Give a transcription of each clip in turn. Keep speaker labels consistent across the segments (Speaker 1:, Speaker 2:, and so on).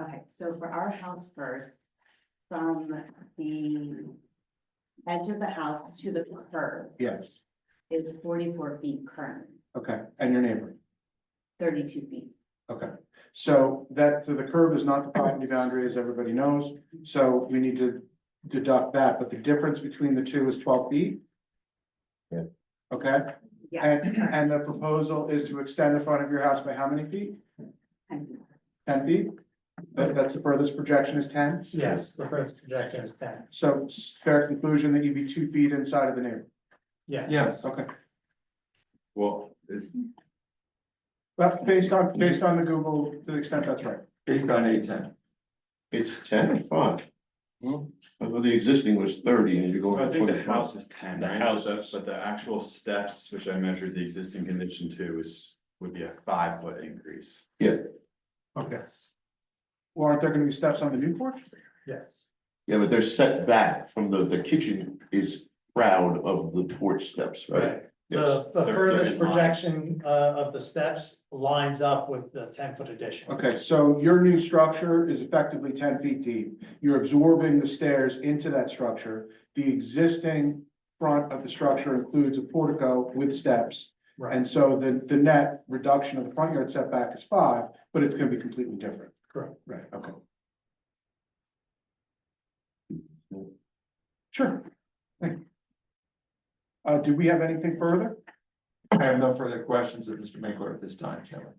Speaker 1: Okay, so for our house first, from the edge of the house to the curb
Speaker 2: Yes,
Speaker 1: is forty-four feet current,
Speaker 2: okay, and your neighbor,
Speaker 1: thirty-two feet.
Speaker 2: okay. So that, so the curb is not the property boundary, as everybody knows, so we need to deduct that, but the difference between the two is twelve feet?
Speaker 3: Yeah.
Speaker 2: Okay,
Speaker 1: Yes.
Speaker 2: and, and the proposal is to extend the front of your house by how many feet?
Speaker 1: And
Speaker 2: Ten feet? That, that's the furthest projection is ten?
Speaker 4: Yes, the first projection is ten,
Speaker 2: So s- fair conclusion that you'd be two feet inside of the neighbor,
Speaker 4: yes.
Speaker 3: Yes,
Speaker 2: okay.
Speaker 3: well, it's
Speaker 2: Well, based on, based on the Google, to the extent that's right.
Speaker 3: based on A ten.
Speaker 5: It's ten or five?
Speaker 3: Hmm.
Speaker 5: Well, the existing was thirty and you're going.
Speaker 6: I
Speaker 5: to
Speaker 6: think the
Speaker 5: 25.
Speaker 6: house is ten,
Speaker 5: The
Speaker 6: right?
Speaker 5: house
Speaker 6: But the-
Speaker 5: is-
Speaker 6: But the actual steps, which I measured the existing condition to is, would be a five foot increase.
Speaker 4: Okay.
Speaker 2: Well, aren't there gonna be steps on the new porch?
Speaker 4: Yes,
Speaker 5: Yeah, but they're set back from the, the kitchen is proud of the porch steps, right?
Speaker 4: right,
Speaker 3: Uh,
Speaker 5: Yes,
Speaker 4: the, the
Speaker 6: They're-
Speaker 4: furthest
Speaker 6: they're in line.
Speaker 4: projection, uh, of the steps lines up with the ten foot addition.
Speaker 2: Okay, so your new structure is effectively ten feet deep. You're absorbing the stairs into that structure. The existing front of the structure includes a portico with steps.
Speaker 4: Right,
Speaker 2: And so the, the net reduction of the front yard setback is five, but it's gonna be completely different.
Speaker 4: Correct.
Speaker 2: Right, okay. Sure. Thank you. Uh, do we have anything further?
Speaker 3: I have no further questions of Mr. Mangler at this time, Chairman.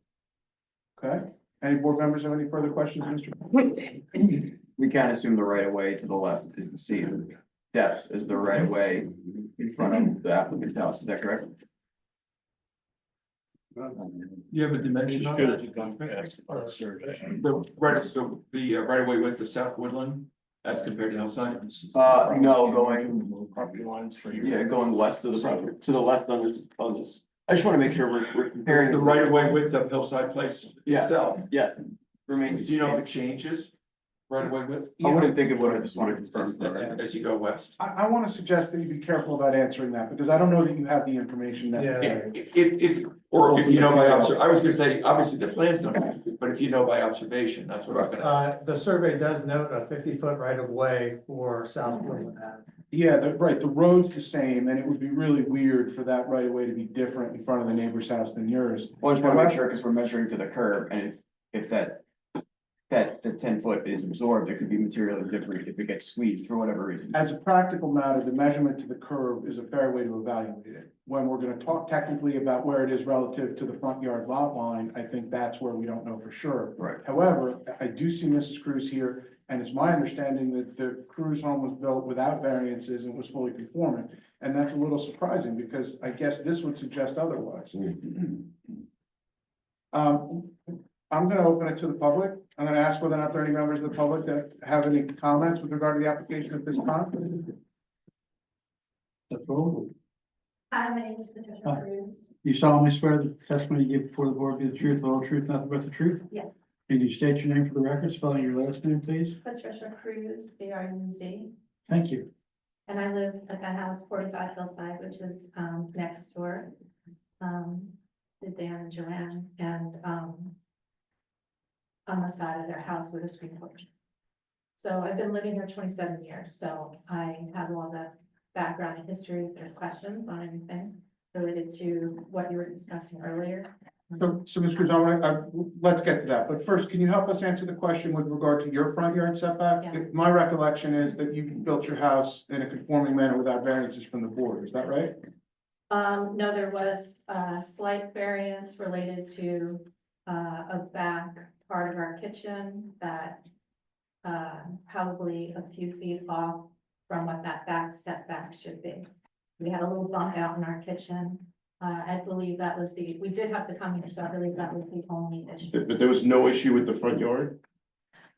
Speaker 2: Okay, any board members have any further questions, Mr.?
Speaker 7: We can assume the right of way to the left is the same depth as the right of way in front of the applicant's house, is that correct?
Speaker 3: You have a dimension on that? The right, so the uh, right of way went to South Woodland as compared to Hillside?
Speaker 7: Uh, no, going,
Speaker 3: Property lines for
Speaker 7: yeah, going west of the property, to the left on this, on this. I just wanna make sure we're, we're comparing.
Speaker 3: The right of way width of Hillside Place
Speaker 7: Yeah.
Speaker 3: itself,
Speaker 7: Remains,
Speaker 3: do you know if it changes? Right of way width?
Speaker 7: I wouldn't think it would, I just wanna confirm.
Speaker 3: As as you go west?
Speaker 2: I, I want to suggest that you be careful about answering that, because I don't know that you have the information that.
Speaker 4: yeah,
Speaker 3: If, if, if- or if you know by obser, I was gonna say, obviously the plans don't, but if you know by observation, that's what I'm gonna ask.
Speaker 4: uh, the survey does note a fifty foot right of way for South Portland Ave.
Speaker 2: Yeah, the, right, the road's the same, and it would be really weird for that right of way to be different in front of the neighbor's house than yours.
Speaker 7: Well, I just wanna make sure, cause we're measuring to the curb, and if, if that. That, the ten foot is absorbed, it could be materially different if it gets squeezed for whatever reason.
Speaker 2: As a practical matter, the measurement to the curb is a fair way to evaluate it. When we're gonna talk technically about where it is relative to the front yard lot line, I think that's where we don't know for sure.
Speaker 7: Right.
Speaker 2: However, I do see Mrs. Cruz here, and it's my understanding that the Cruz home was built without variances and was fully conforming. And that's a little surprising, because I guess this would suggest otherwise. Um, I'm gonna open it to the public. I'm gonna ask whether or not there are any members of the public that have any comments with regard to the application at this time.
Speaker 8: Hi, my name is Patricia
Speaker 9: Hi.
Speaker 8: Cruz.
Speaker 9: You solemnly swear that the testimony you give before the board be the truth, the whole truth, nothing but the truth?
Speaker 8: Yes.
Speaker 9: Can you state your name for the record, spelling your last name, please?
Speaker 8: Patricia Cruz, B R U Z.
Speaker 9: Thank you.
Speaker 8: And I live at the house forty-five Hillside, which is um next door. Um, to Dan and Joanne and um. On the side of their house with a screen porch. So I've been living here twenty-seven years, so I have all the background and history, if there's questions on anything related to what you were discussing earlier.
Speaker 2: So, so Ms. Cruz, I want to, let's get to that, but first, can you help us answer the question with regard to your front yard setback?
Speaker 8: Yeah.
Speaker 2: My recollection is that you built your house in a conforming manner without variances from the board, is that right?
Speaker 8: Um, no, there was a slight variance related to, uh, a back part of our kitchen that. Uh, probably a few feet off from what that back setback should be. We had a little bump out in our kitchen. Uh, I believe that was the, we did have to come here, so I believe that was the only issue.
Speaker 5: But but there was no issue with the front yard?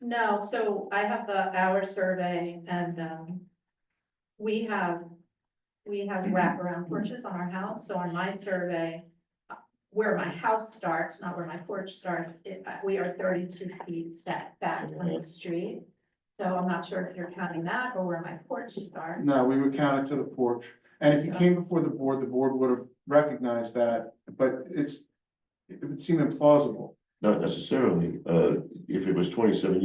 Speaker 8: No, so I have the hour survey and, um, we have, we have wraparound porches on our house, so on my survey, uh, where my house starts, not where my porch starts, it, uh, we are thirty-two feet set back from the street. So I'm not sure if you're counting that or where my porch starts.
Speaker 2: No, we would count it to the porch, and if you came before the board, the board would have recognized that, but it's, it would seem implausible.
Speaker 5: Not necessarily, uh, if it was twenty-seven